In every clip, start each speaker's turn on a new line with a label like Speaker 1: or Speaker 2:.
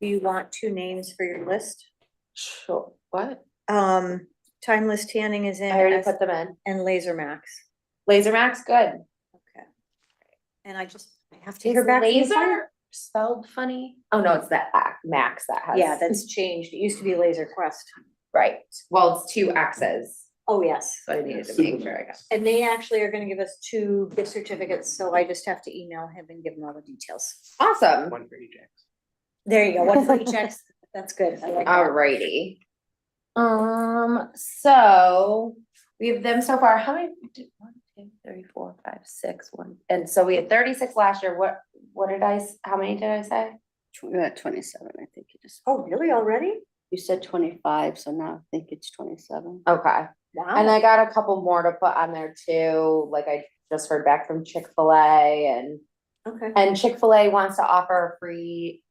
Speaker 1: Do you want two names for your list?
Speaker 2: Sure, what?
Speaker 1: Um, Timeless Tanning is in
Speaker 2: I already
Speaker 1: as-
Speaker 2: put them in.
Speaker 1: and Laser Max.
Speaker 2: Laser Max, good.
Speaker 1: Okay. And I just, I have to
Speaker 2: Is
Speaker 1: hear back. from the farm-
Speaker 2: laser spelled funny? Oh, no, it's the ac- Max that has.
Speaker 1: Yeah, that's changed. It used to be Laser Quest.
Speaker 2: Right, well, it's two X's,
Speaker 1: Oh, yes.
Speaker 2: so I needed to make sure I got.
Speaker 1: And they actually are gonna give us two gift certificates, so I just have to email him and give him all the details.
Speaker 2: Awesome,
Speaker 3: One for each X.
Speaker 1: There you go, one for each ex. That's good. I like that.
Speaker 2: alrighty. Um, so we have them so far, how many? did- One, two, three, four, five, six, one, and so we had thirty-six last year, what, what did I, s- how many did I say?
Speaker 4: Tw- We're at twenty-seven, I think you just,
Speaker 1: Oh, really? Already?
Speaker 4: you said twenty-five, so now I think it's twenty-seven.
Speaker 2: Okay. And
Speaker 1: Wow.
Speaker 2: I got a couple more to put on there too, like I just heard back from Chick-fil-A and,
Speaker 1: Okay.
Speaker 2: and Chick-fil-A wants to offer a free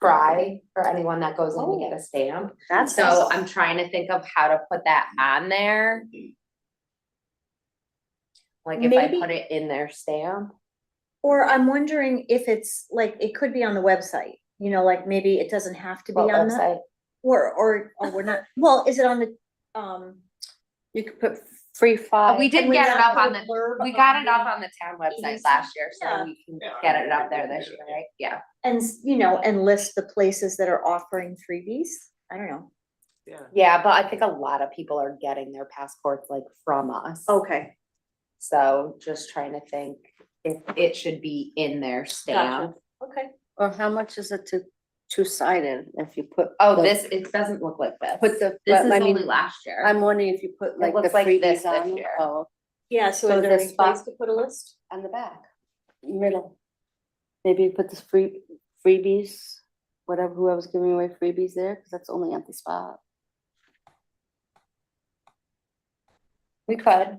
Speaker 2: fry for anyone that goes in to
Speaker 1: Oh.
Speaker 2: get a stamp.
Speaker 1: That's.
Speaker 2: So I'm trying to think of how to put that on there. Like if I
Speaker 1: Maybe-
Speaker 2: put it in their stamp,
Speaker 1: Or I'm wondering if it's like, it could be on the website, you know, like maybe it doesn't have to be
Speaker 2: what
Speaker 1: on the,
Speaker 2: website?
Speaker 1: or, or, or we're not, well, is it on the, um.
Speaker 4: You could put free five.
Speaker 2: We did
Speaker 1: uh, can
Speaker 2: get it
Speaker 1: not
Speaker 2: up
Speaker 1: put a
Speaker 2: on the,
Speaker 1: blurb
Speaker 2: we got it
Speaker 1: the-
Speaker 2: up on the town website last year,
Speaker 1: Yeah.
Speaker 2: so we can
Speaker 3: Yeah, I
Speaker 2: get it
Speaker 3: mean,
Speaker 2: up
Speaker 3: we
Speaker 2: there
Speaker 3: can
Speaker 2: this
Speaker 3: do
Speaker 2: year,
Speaker 3: that.
Speaker 2: right? Yeah.
Speaker 1: And, s- you know, and list the places that are offering freebies. I don't know.
Speaker 3: Yeah.
Speaker 2: Yeah, but I think a lot of people are getting their passports like from us.
Speaker 1: Okay.
Speaker 2: So just trying to think if it should be in their stamp.
Speaker 1: Okay.
Speaker 4: Or how much is it to two-sided if you put?
Speaker 2: Oh,
Speaker 4: the-
Speaker 2: this, it doesn't look like this.
Speaker 4: Put the,
Speaker 2: This
Speaker 4: but
Speaker 2: is
Speaker 4: I
Speaker 2: only
Speaker 4: mean,
Speaker 2: last year.
Speaker 4: I'm wondering if you put like the
Speaker 2: looks like this
Speaker 4: freebies
Speaker 2: this
Speaker 4: on,
Speaker 2: year.
Speaker 4: oh,
Speaker 1: Yeah, so
Speaker 4: So
Speaker 1: is there
Speaker 4: this
Speaker 1: any place
Speaker 4: box-
Speaker 1: to put a list?
Speaker 2: on the back.
Speaker 4: middle. Maybe you put the free, freebies, whatever, whoever's giving away freebies there, because that's the only empty spot.
Speaker 2: We could.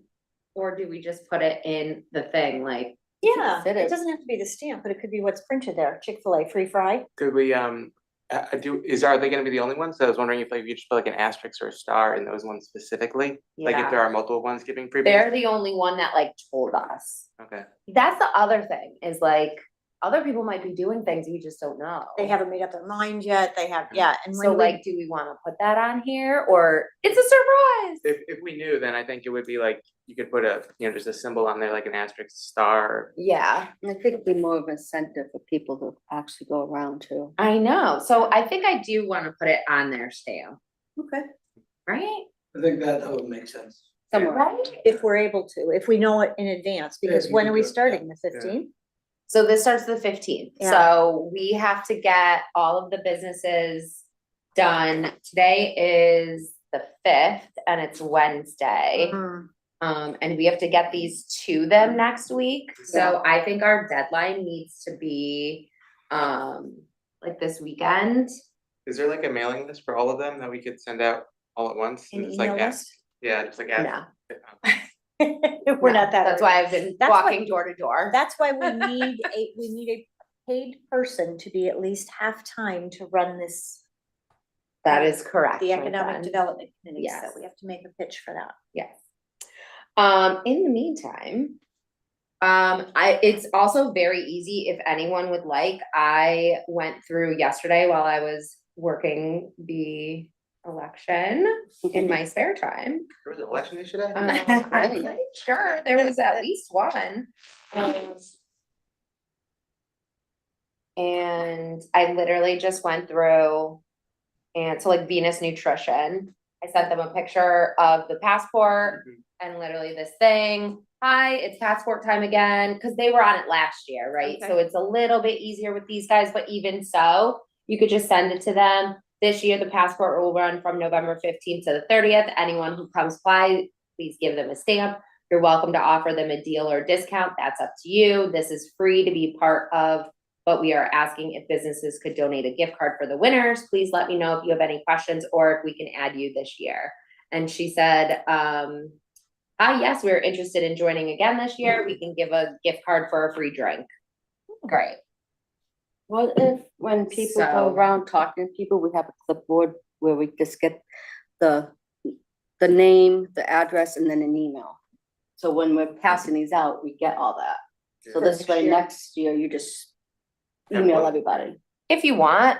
Speaker 2: Or do we just put it in the thing like?
Speaker 1: Yeah,
Speaker 4: fit
Speaker 1: it
Speaker 4: it.
Speaker 1: doesn't have to be the stamp, but it could be what's printed there. Chick-fil-A free fry.
Speaker 3: Could we, um, uh, uh, do, is, are they gonna be the only ones? I was wondering if like you just put like an asterisk or a star in those ones specifically? Like if there are multiple ones giving freebies?
Speaker 2: They're the only one that like told us.
Speaker 3: Okay,
Speaker 2: That's the other thing is like, other people might be doing things we just don't know.
Speaker 1: They haven't made up their mind yet. They have, yeah, and
Speaker 2: So
Speaker 1: when we-
Speaker 2: like, do we want to put that on here or it's a surprise?
Speaker 3: if, if we knew, then I think it would be like, you could put a, you know, just a symbol on there, like an asterisk star.
Speaker 2: Yeah.
Speaker 4: And I think it'd be more of incentive for people to actually go around too.
Speaker 2: I know, so I think I do wanna put it on their stamp,
Speaker 1: Okay.
Speaker 2: right?
Speaker 5: I think that, that would make sense.
Speaker 4: Somewhere,
Speaker 1: If we're able to, if we know it in advance,
Speaker 5: Yeah,
Speaker 1: because
Speaker 5: you
Speaker 1: when
Speaker 5: can
Speaker 1: are we
Speaker 5: do it, yeah,
Speaker 1: starting? The
Speaker 3: yeah.
Speaker 1: fifteenth?
Speaker 2: So this starts the fifteenth,
Speaker 1: Yeah.
Speaker 2: so we have to get all of the businesses done. Today is the fifth and it's Wednesday.
Speaker 1: Mm-hmm. Mm,
Speaker 2: Um, and we have to get these to them next week, so I think our deadline needs to be, um, like this weekend.
Speaker 3: Is there like a mailing list for all of them that we could send out all at once?
Speaker 1: An
Speaker 3: And it's like
Speaker 1: email
Speaker 3: ask-
Speaker 1: list?
Speaker 3: Yeah, just like ask. um,
Speaker 2: No,
Speaker 1: We're
Speaker 2: no,
Speaker 1: not that.
Speaker 2: That's
Speaker 1: early.
Speaker 2: why I've been
Speaker 1: That's what-
Speaker 2: walking door to door.
Speaker 1: That's why we need a, we need a paid person to be at least half-time to run this,
Speaker 2: That is correct.
Speaker 1: the
Speaker 2: my
Speaker 1: economic
Speaker 2: friend.
Speaker 1: development committee, so
Speaker 2: Yes.
Speaker 1: we have to make a pitch for that.
Speaker 2: Yes. Um, in the meantime, um, I, it's also very easy if anyone would like, I went through yesterday while I was working the election in my spare time.
Speaker 3: There was an election issue today?
Speaker 2: Um,
Speaker 1: Uh,
Speaker 4: Nice.
Speaker 2: I'm pretty sure there was at least one. Um, And I literally just went through and so like Venus Nutrition, I sent them a picture of the passport
Speaker 3: Mhm.
Speaker 2: and literally this thing. Hi, it's passport time again, cause they were on it last year, right? So it's a little bit easier with these guys, but even so, you could just send it to them. This year, the passport will run from November fifteenth to the thirtieth. Anyone who comes by, please give them a stamp. You're welcome to offer them a deal or discount. That's up to you. This is free to be part of. But we are asking if businesses could donate a gift card for the winners. Please let me know if you have any questions or if we can add you this year. And she said, um, ah, yes, we're interested in joining again this year. We can give a gift card for a free drink. Great.
Speaker 4: What if, when people go
Speaker 2: So-
Speaker 4: around talking to people, we have a clipboard where we just get the, the name, the address, and then an email? So when we're passing these out, we get all that. So
Speaker 1: For
Speaker 4: this
Speaker 1: next
Speaker 4: way,
Speaker 1: year.
Speaker 4: next year, you just
Speaker 3: Yeah,
Speaker 4: email
Speaker 3: what-
Speaker 4: everybody.
Speaker 2: If you want,